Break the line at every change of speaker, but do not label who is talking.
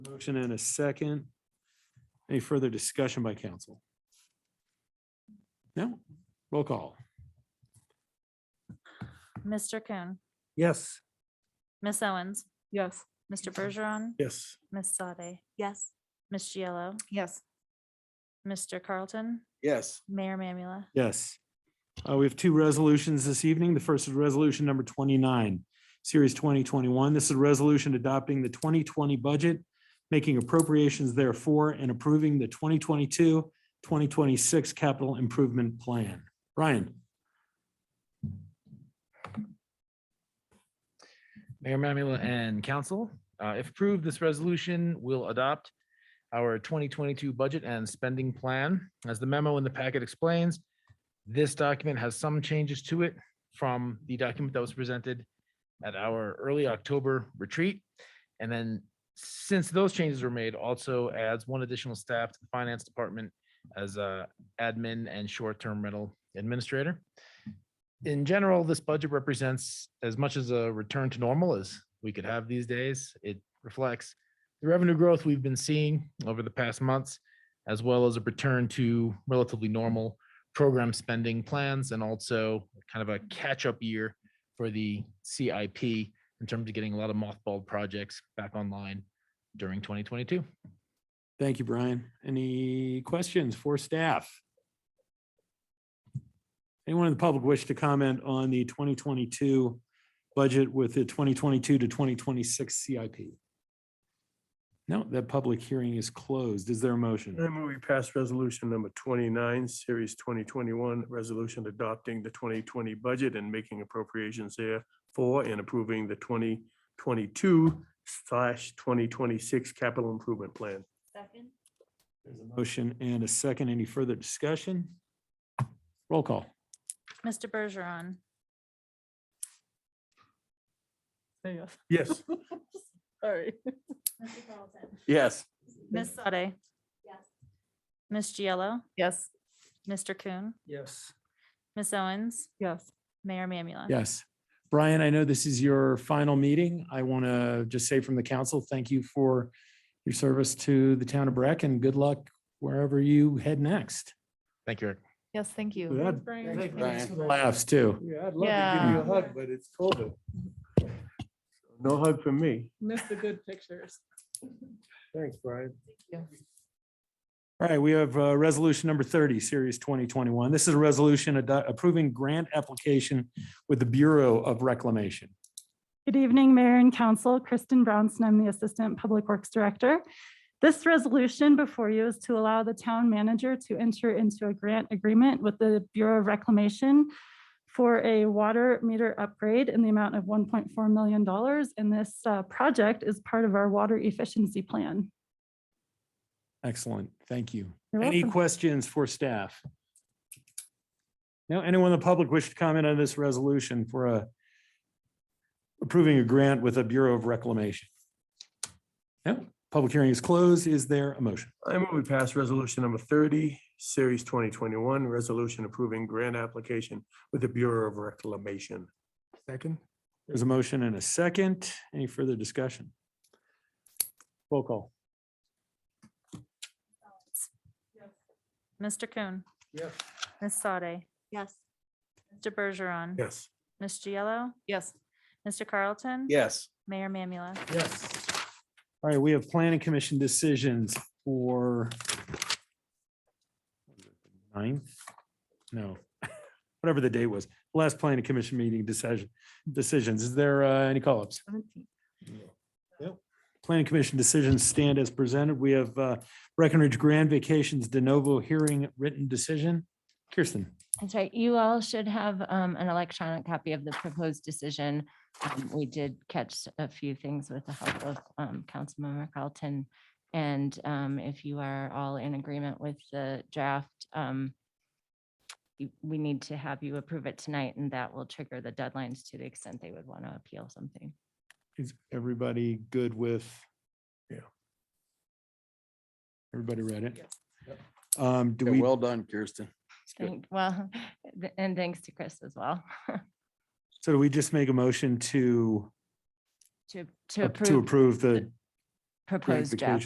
motion and a second. Any further discussion by council? No? Roll call.
Mr. Coon,
Yes.
Miss Owens,
Yes.
Mr. Bergeron,
Yes.
Miss Sade,
Yes.
Miss Giello,
Yes.
Mr. Carlton,
Yes.
Mayor Mamula.
Yes. Uh, We have two resolutions this evening. The first is Resolution Number 29, Series 2021. This is a resolution adopting the 2020 budget, making appropriations therefore, and approving the 2022, 2026 capital improvement plan. Brian?
Mayor Mamula and council, uh, if approved, this resolution will adopt our 2022 budget and spending plan. As the memo in the packet explains, this document has some changes to it from the document that was presented at our early October retreat. And then since those changes were made, also adds one additional staff to the finance department as a admin and short-term rental administrator in general, this budget represents as much as a return to normal as we could have these days. It reflects the revenue growth we've been seeing over the past months, as well as a return to relatively normal program spending plans and also kind of a catch-up year for the CIP in terms of getting a lot of mothballed projects back online during 2022.
Thank you, Brian. Any questions for staff? Anyone in the public wish to comment on the 2022 budget with the 2022 to 2026 CIP? No, that public hearing is closed. Is there a
I
motion?
move we pass resolution number twenty-nine, series twenty twenty-one, resolution adopting the twenty twenty budget and making appropriations there for and approving the twenty twenty-two slash twenty twenty-six capital improvement plan.
Second.
There's a Motion and a second. Any further discussion? Roll call.
Mr. Bergeron,
Yes.
Sorry.
Mr. Carlton,
Yes.
Miss Sade. Miss Giello,
Yes.
Mr. Coon,
Yes.
Miss Owens,
Yes.
Mayor Mamula.
Yes. Brian, I know this is your final meeting. I want to just say from the council, thank you for your service to the town of Breck and good luck wherever you head next.
Thank you, Eric.
Yes, thank you.
With that,
Thanks,
Thanks for the Laughs too.
Yeah, I'd
Yeah.
hug, but it's COVID. No hug from me.
Miss the good pictures.
Thanks, Brian.
All right, we have uh, resolution number 30, series 2021. This is a resolution ado- approving grant application with the Bureau of Reclamation.
Good evening, Mayor and Council. Kristen Brownson, I'm the Assistant Public Works Director. This resolution before you is to allow the town manager to enter into a grant agreement with the Bureau of Reclamation for a water meter upgrade in the amount of $1.4 million. And this uh, project is part of our water efficiency plan.
Excellent. Thank you.
You're
Any
welcome.
questions for staff? Now, anyone in the public wish to comment on this resolution for a approving a grant with a Bureau of Reclamation? No, public hearing is closed. Is there a motion?
I move we pass resolution number thirty, series twenty twenty-one, resolution approving grant application with the Bureau of Reclamation. Second?
There's a motion and a second. Any further discussion? Roll call.
Mr. Coon,
Yes.
Miss Sade,
Yes.
Mr. Bergeron,
Yes.
Miss Giello,
Yes.
Mr. Carlton.
Yes.
Mayor Mamula.
Yes. All right, we have planning commission decisions for ninth? No, whatever the date was, last planning commission meeting decision, decisions. Is there uh, any call-ups? Planning Commission decisions stand as presented. We have uh, Breckenridge Grand Vacations de novo hearing written decision. Kirsten,
That's right. You all should have um, an electronic copy of the proposed decision. Um, We did catch a few things with the help of um, Councilmember Carlton. And um, if you are all in agreement with the draft, um, you- we need to have you approve it tonight, and that will trigger the deadlines to the extent they would want to appeal something.
is everybody good with?
Yeah.
Everybody read it?
Yes.
Um, Do
Yeah,
we,
Well done, Kirsten.
good.
Thank- Well, th- and thanks to Chris as well
so do we just make a motion to,
to to
to
approve
approve the
proposed
vacation.
draft.